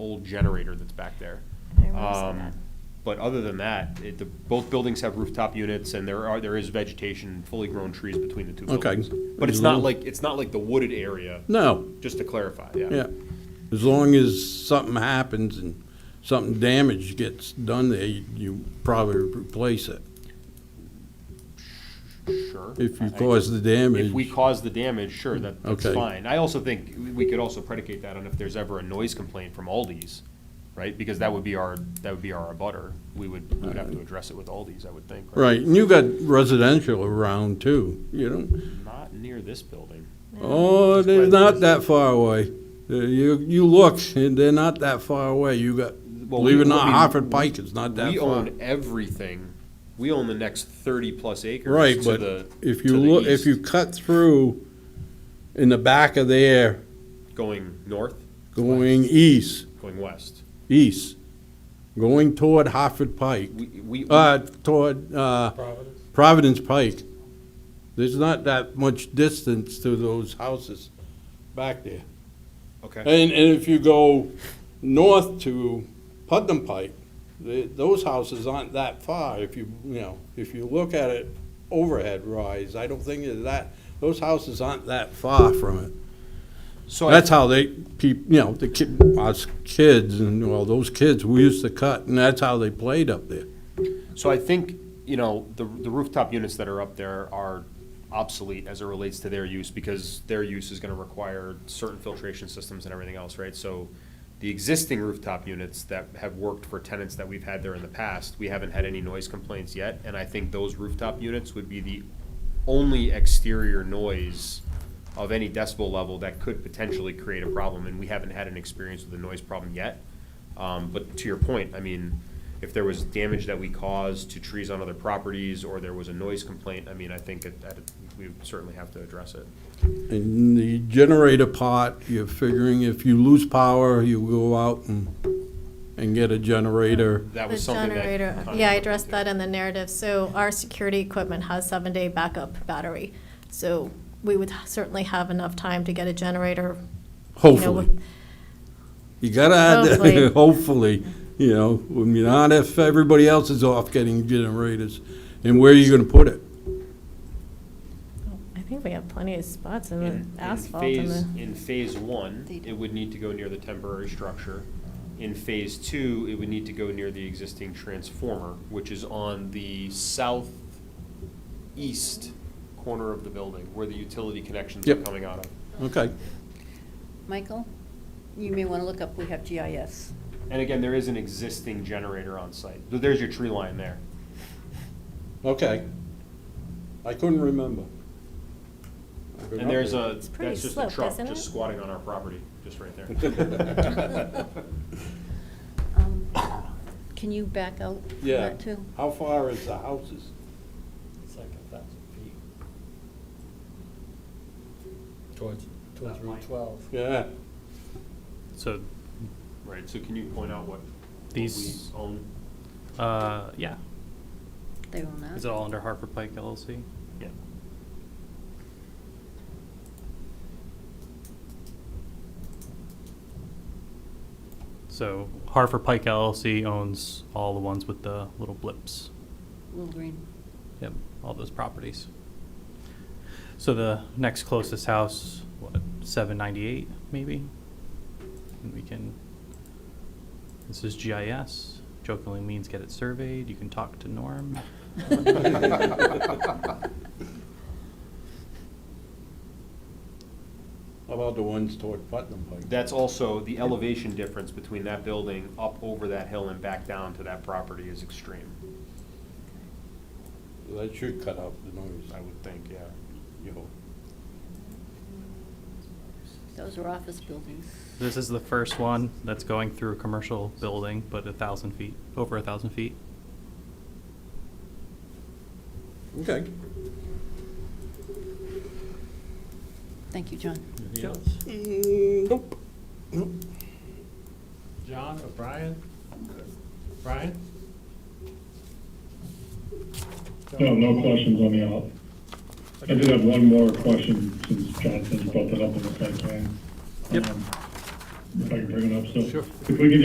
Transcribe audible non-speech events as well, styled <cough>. old generator that's back there. I remember seeing Um, that. But other than that, it, the, both buildings have rooftop units and there are, there is vegetation, fully grown trees between the two Okay. buildings. But it's As not long- like, it's not like the wooded area, No, just to clarify, yeah. yeah. As long as something happens and something damage gets done there, you- you probably replace it. Sure. If I- you cause the damage. If we cause the damage, sure, that, that's Okay. fine. I also think we could also predicate that on if there's ever a noise complaint from Aldi's, right? Because that would be our, that would be our abutter. We would, we would have to address it with Aldi's, I would think. Right, and you got residential around too, you know? Not near this building. Oh, they're not that far away. Uh, You, you look, and they're not that far away. You got, Well, believe it or we- I not, mean, Hartford Pike is not that We far. own everything. We own the next thirty-plus acres. Right, to but the- if to you the look, if east, you cut through in the back of there, Going north, going east, going west. east, going toward Hartford Pike, We, we, uh, toward, uh, Providence Pike, there's not that much distance to those houses back there. okay, And, and if you go north to Putnam Pike, the, those houses aren't that far. If you, you know, if you look at it overhead rise, I don't think it's that, those houses aren't that far from it. so I, That's how they, peop, you know, the kid, us kids and, well, those kids, we used to cut and that's how they played up there. so I think, you know, the, the rooftop units that are up there are obsolete as it relates to their use, because their use is gonna require certain filtration systems and everything else, right? So the existing rooftop units that have worked for tenants that we've had there in the past, we haven't had any noise complaints yet, and I think those rooftop units would be the only exterior noise of any decibel level that could potentially create a problem, and we haven't had an experience with a noise problem yet. Um, but to your point, I mean, if there was damage that we caused to trees on other properties, or there was a noise complaint, I mean, I think that, that we would certainly have to address it. And the generator part, you're figuring if you lose power, you go out and, and get a generator. That The was something that. generator, Connie yeah, I looked addressed into. that in the narrative. So our security equipment has seven-day backup battery. So we would certainly have enough time to get a generator. you know, Hopefully. You gotta add that, <laughs> hopefully, you know, I mean, not if everybody else is off getting generators. And where are you gonna put it? I think we have plenty of spots in In- the in Mm, asphalt and phase- the. In phase one, it would need to go near the temporary structure. In phase two, it would need to go near the existing transformer, which is on the southeast corner of the building, where the utility connections are Yep. coming out of. Okay, Michael, you may want to look up, we have GIS. And again, there is an existing generator on site. Th- There's your tree line there. okay. I couldn't remember. I've been And up there's there. a, pretty that's just a sloped, truck isn't just it? squatting on our property, just right <laughs> there. Um, <coughs> Can you back out from <laughs> Yeah, that too? how far is the houses? It's like a thousand feet. Towards, towards That Route might- twelve. Yeah, So, Right, so can you point out what what we These- own? uh, yeah, They will not. is it all under Harper Pike LLC? Yeah. So Harper Pike LLC owns all the ones with the little blips. Little green. Yep, all those properties. So the next closest house, what, seven ninety-eight, maybe? And we can, this is GIS, jokingly means get it surveyed, you can talk to Norm. how about the ones toward Putnam Pike? That's also, the elevation difference between that building up over that hill and back down to that property is extreme, That should cut out the noise, I would think, yeah. you hope. Those are office buildings. This is the first one that's going through a commercial building, but a thousand feet, over a thousand feet. Okay. Thank you, John. Anything else? Nope. John or Brian? Brian? No, Oh, no questions on the audit. I did have one more question since Jonathan brought that up in the site plan. Yep. Um, If I can bring it up, so. Sure. If we could